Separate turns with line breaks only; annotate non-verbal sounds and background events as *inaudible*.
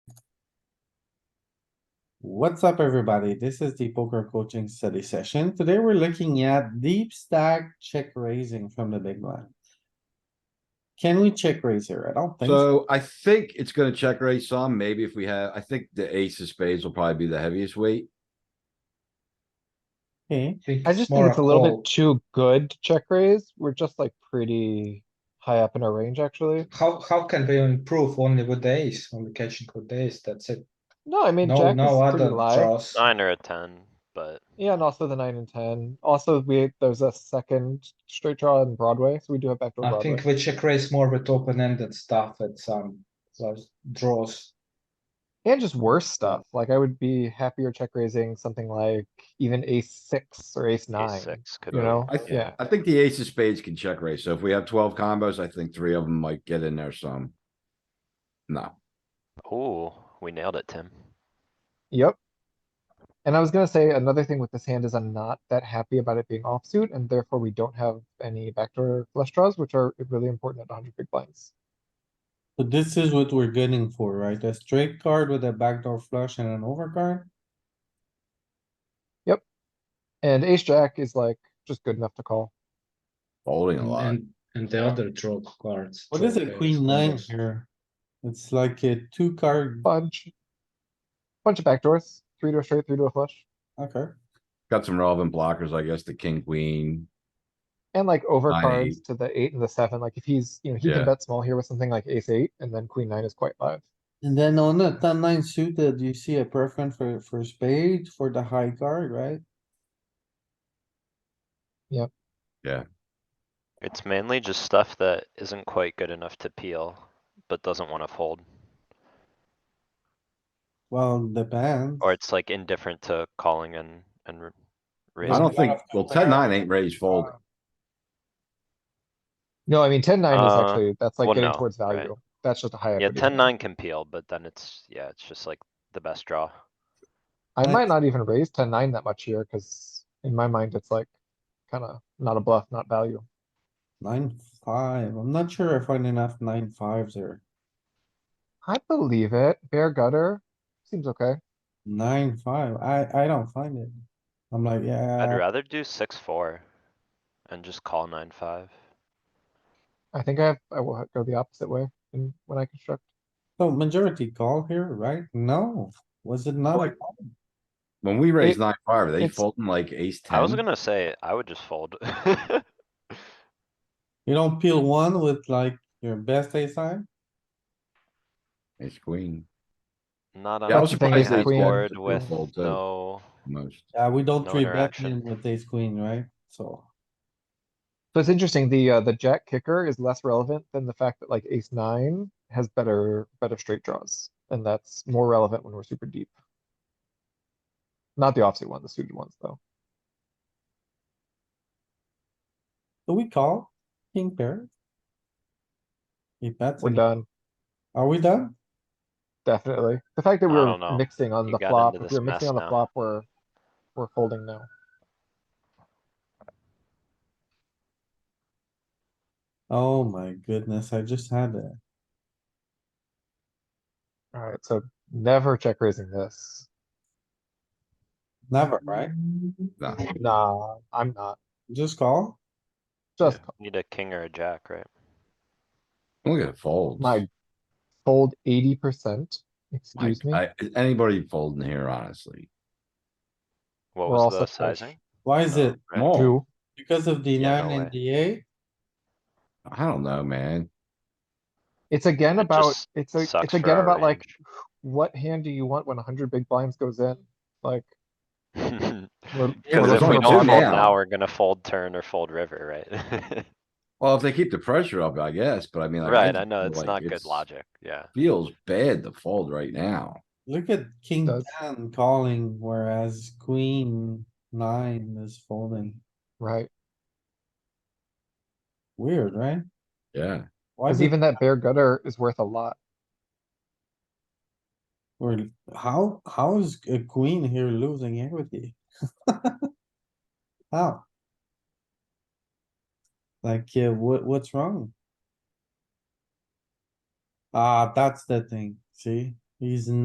What's up, everybody? This is the poker coaching study session. Today we're looking at deep stack check raising from the big blind. Can we check raise here? I don't think so.
So I think it's gonna check raise some, maybe if we have, I think the ace of spades will probably be the heaviest weight.
Okay,
I just think it's a little bit too good to check raise. We're just like pretty high up in our range, actually.
How, how can we improve only with the ace, only catching with the ace, that's it,
No, I mean,
no,
jack
no
is
other
pretty live.
draws.
Nine or a ten, but
Yeah, and also the nine and ten. Also, we, there's a second straight draw on Broadway, so we do have backdoor
I
Broadway.
think we check raise more with open-ended stuff at some, those draws.
And just worse stuff. Like I would be happier check raising something like even ace six or ace
ace
nine.
six could.
You
be-
know,
I, th-
yeah,
I think the ace of spades can check raise, so if we have twelve combos, I think three of them might get in there some. No,
Ooh, we nailed it, Tim.
yep. And I was gonna say another thing with this hand is I'm not that happy about it being offsuit and therefore we don't have any backdoor flush draws, which are really important at hundred big blinds.
so this is what we're getting for, right? A straight card with a backdoor flush and an overcard?
And ace jack is like just good enough to call.
folding a
And,
lot.
and- and the other draw cards.
What is
draw
a
pairs,
queen nine
combos.
here? It's like a two card,
Bunch. Bunch of backdoors, three to a straight, three to a flush,
okay.
Got some relevant blockers, I guess, the king, queen.
and like over
Nine,
cards to the eight and the seven. Like if he's, you know, he
Yeah.
can bet small here with something like ace eight and then queen nine is quite live.
And then on the ten nine suited, you see a preference for, for spade for the high card, right?
It's mainly just stuff that isn't quite good enough to peel, but doesn't wanna fold,
Well, depends.
or it's like indifferent to calling and, and.
There's
I
r-
a
raising.
don't
lot
think,
of
well, ten, nine ain't raised fold.
No, I mean, ten nine is
Uh,
actually, that's like
well,
getting
no,
towards
right.
value. That's just a high
Yeah,
equity.
ten,
hand.
nine can peel, but then it's, yeah, it's just like the best draw.
I might not even raise ten nine that much here, cuz in my mind, it's like kinda not a bluff, not value.
Nine, five. I'm not sure I find enough nine fives here.
I believe it. Bear gutter seems okay.
Nine, five. I, I don't find it. I'm like,
Uh,
I'd
yeah,
rather do six, four. And just call nine, five.
I think I have, I will go the opposite way in when I construct.
so majority call here, right? No, was it not?
Like- When we raise
It-
nine, five, are they
it's-
folding like ace, ten?
I was gonna say, I would just fold. *laughs*
You don't peel one with like your best ace sign?
Ace, queen,
Not on
Yeah, I
a
was
surprised
big
they folded.
board with
Fold, too.
no,
most.
Yeah, we don't
No
three bet
interaction.
him with ace queen, right? So.
So it's interesting, the, uh, the jack kicker is less relevant than the fact that like ace nine has better, better straight draws. And that's more relevant when we're super deep. Not the offsuit one, the suited ones though.
Do we call king pair? He bets.
We're
and-
done,
Are we done?
definitely. The fact that
I
we're
don't know.
mixing on
You
the
got
flop,
into
if we're
this
mixing
mess
on the
now.
flop, we're, we're folding now.
Oh my goodness, I just had it.
Alright, so never check raising this.
Never, right?
Nah.
Nah, I'm not.
Just call?
Just
need a king or a jack, right?
Look at folds.
my fold eighty percent,
My-
excuse me.
I- anybody folding here, honestly?
What
We're
was
all
the
set fish.
sizing?
Why is
Oh,
it?
right.
Small.
Two,
Because of the
Yeah,
nine
no way.
and the eight?
I don't know, man.
it's again
It
about,
just
it's, a-
sucks
it's
for
again
our
about like
range.
what hand do you want when hundred big blinds goes in? Like,
*laughs*
we're,
*laughs* Yeah,
Cause
there's
if we
only
don't
two
fold
now.
now, we're gonna fold turn or fold river, right? *laughs*
Well, if they keep the pressure up, I guess, but I mean. like,
Right,
just
I know,
feel
it's
like
not good
it's-
logic, yeah.
Feels bad to fold right now.
Look at king
Does.
ten calling, whereas queen nine is folding.
right,
Weird, right?
Yeah,
Why
cause
is even,
even that bare gutter is worth a lot.
or how, how is a queen here losing equity? *laughs* How? Like, yeah, what, what's wrong? Ah, that's the thing, see? He's